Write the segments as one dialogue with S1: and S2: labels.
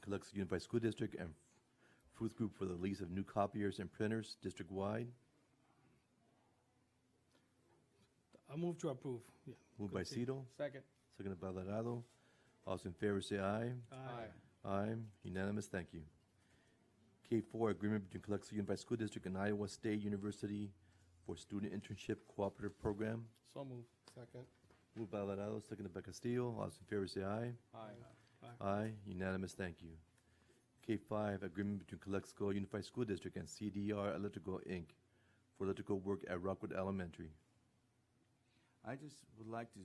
S1: Biloxi Unified School District and Fruth Group for the lease of new copiers and printers district-wide.
S2: I move to approve. Yeah.
S1: Moved by
S2: Continue.
S1: Cito,
S3: Second.
S1: seconded by Alarado. All those in favor say aye.
S2: Aye.
S1: Aye, unanimous, thank you. K four, agreement between Biloxi Unified School District and Iowa State University for Student Internship Cooperative Program.
S3: So move.
S4: Second.
S1: Moved by Alarado, seconded by Castillo. All those in favor say aye.
S3: Aye.
S1: Aye, unanimous, thank you. K5, agreement between Calexico Unified School District and CDR Electrical, Inc. for electrical work at Rockwood Elementary.
S5: I just would like to,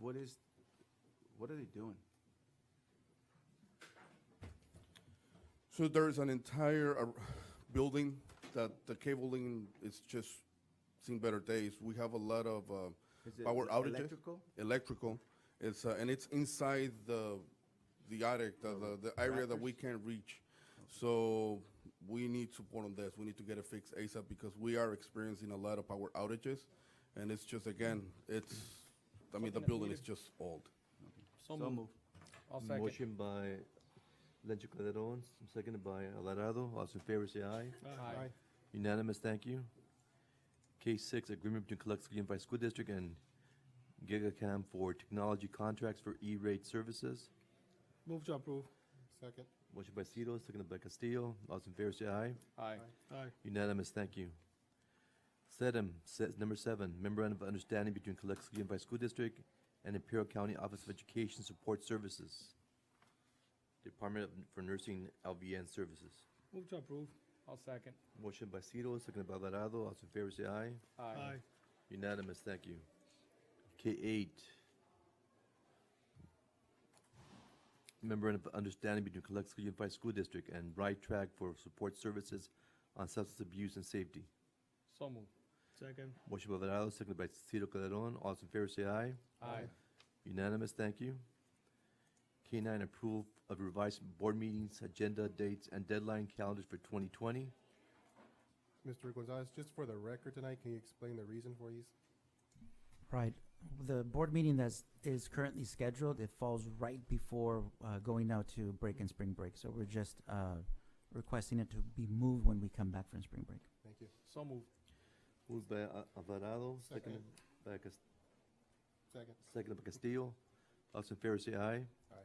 S5: what is, what are they doing?
S4: So there's an entire uh, building that the cabling is just seen better days. We have a lot of uh,
S5: Is it
S4: power
S5: el-
S4: outages.
S5: electrical?
S4: Electrical. It's uh, and it's inside the the attic, the, the, the area that we can't reach. So we need support on this. We need to get it fixed ASAP because we are experiencing a lot of power outages, and it's just again, it's. I mean,
S3: Something
S4: the
S3: that
S4: building
S3: needed-
S4: is just old.
S3: So move. I'll second.
S1: Motion by Lencho Calderon, seconded by Alarado. All those in favor say aye.
S3: Aye.
S1: Unanimous, thank you. K6, agreement between Calexico Unified School District and GigaCam for technology contracts for E-rate services.
S2: Move to approve.
S4: Second.
S1: Motion by Cito, seconded by Castillo. All those in favor say aye.
S3: Aye.
S2: Aye.
S1: Unanimous, thank you. Sedem, se- number seven, memorandum of understanding between Calexico Unified School District and Imperial County Office of Education Support Services, Department of- for Nursing LVN Services.
S2: Move to approve.
S3: I'll second.
S1: Motion by Cito, seconded by Alvarado. All those in favor say aye.
S3: Aye.
S1: Unanimous, thank you. K eight. Memorandum of Understanding between Calexico Unified School District and Right Track for Support Services on Substance Abuse and Safety.
S3: So move.
S2: Second.
S1: Motion by Alvarado, seconded by Cito Calderon. All those in favor say aye.
S3: Aye.
S1: Unanimous, thank you. K nine, approval of revised board meetings, agenda dates, and deadline calendars for twenty twenty.
S6: Mr. Gonzalez, just for the record tonight, can you explain the reason for these?
S7: Right. The board meeting that's, is currently scheduled, it falls right before uh, going out to break and spring break. So we're just uh, requesting it to be moved when we come back from spring break.
S6: Thank you.
S3: So move.
S1: Moved by uh, Alvarado, seconded
S6: Second.
S1: by Cas-
S6: Second.
S1: seconded by Castillo. All those in favor say aye.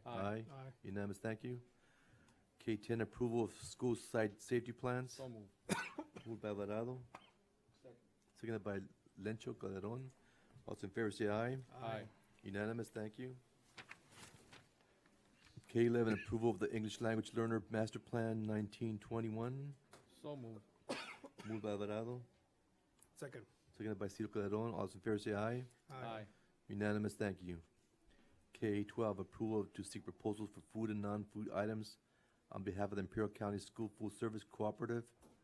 S1: Aye.
S2: Aye.
S1: Unanimous, thank you. K ten, approval of school site safety plans.
S3: So move.
S1: Moved by Alvarado,
S3: Second.
S1: seconded by Lencho Calderon. All those in favor say aye.
S3: Aye.
S1: Unanimous, thank you. K eleven, approval of the English language learner master plan nineteen twenty-one,
S3: So move.
S1: moved by Alvarado,
S2: Second.
S1: seconded by Cito Calderon, all those in favor say aye.
S3: Aye.
S1: Unanimous, thank you. K twelve, approval to seek proposals for food and non-food items on behalf of the Imperial County School Food Service Cooperative,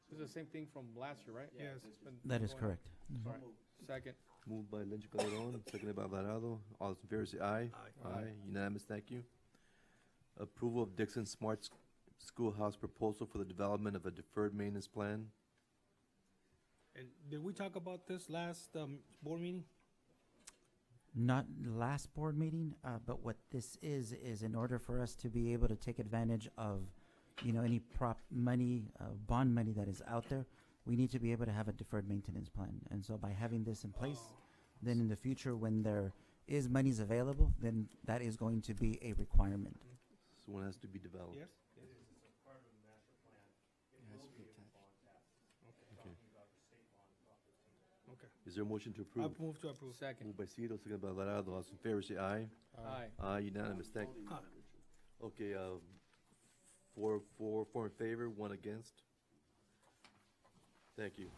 S3: This is the same thing from last year, right?
S2: Yes.
S3: It's been
S7: That is
S3: going on.
S7: correct.
S3: Sorry. Second.
S1: moved by Lencho Calderon, seconded by Alvarado, all those in favor say aye.
S2: Aye.
S1: Aye, unanimous, thank you. Approval of Dixon Smart S- Schoolhouse proposal for the development of a deferred maintenance plan.
S2: And did we talk about this last um, board meeting?
S7: Not last board meeting, uh, but what this is, is in order for us to be able to take advantage of, you know, any prop money, uh, bond money that is out there, we need to be able to have a deferred maintenance plan. And so by having this in place, then in the future, when there is monies available, then that is going to be a requirement.
S1: So one has to be developed.
S2: Yes.
S5: It has to be attached.
S2: Okay.
S1: Is there a motion to
S2: I
S1: approve?
S2: move to approve.
S3: Second.
S1: Moved by Cito, seconded by Alvarado, all those in favor say aye.
S3: Aye.
S1: Aye, unanimous, thank you.
S2: Aye.
S1: Okay, uh, four, four, four in favor, one against. Thank you.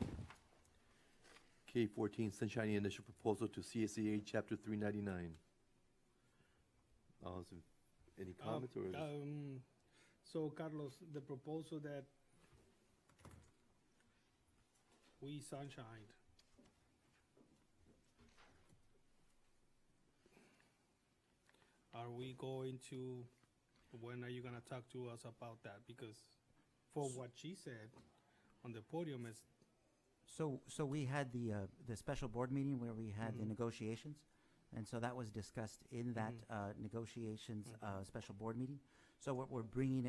S1: K fourteen, Sunshine Initial Proposal to CSEA Chapter three ninety-nine. Uh, so any
S2: Uh,
S1: comments or? just-
S2: Um, so Carlos, the proposal that we sunshined. Are we going to, when are you gonna talk to us about that? Because for what she said on the podium is,
S7: So, so we had the, uh, the special board meeting where we had the
S2: Mhm.
S7: negotiations. And so that was discussed in that,
S2: Mhm.
S7: uh, negotiations,
S2: Mhm.
S7: uh, special board meeting. So what we're bringing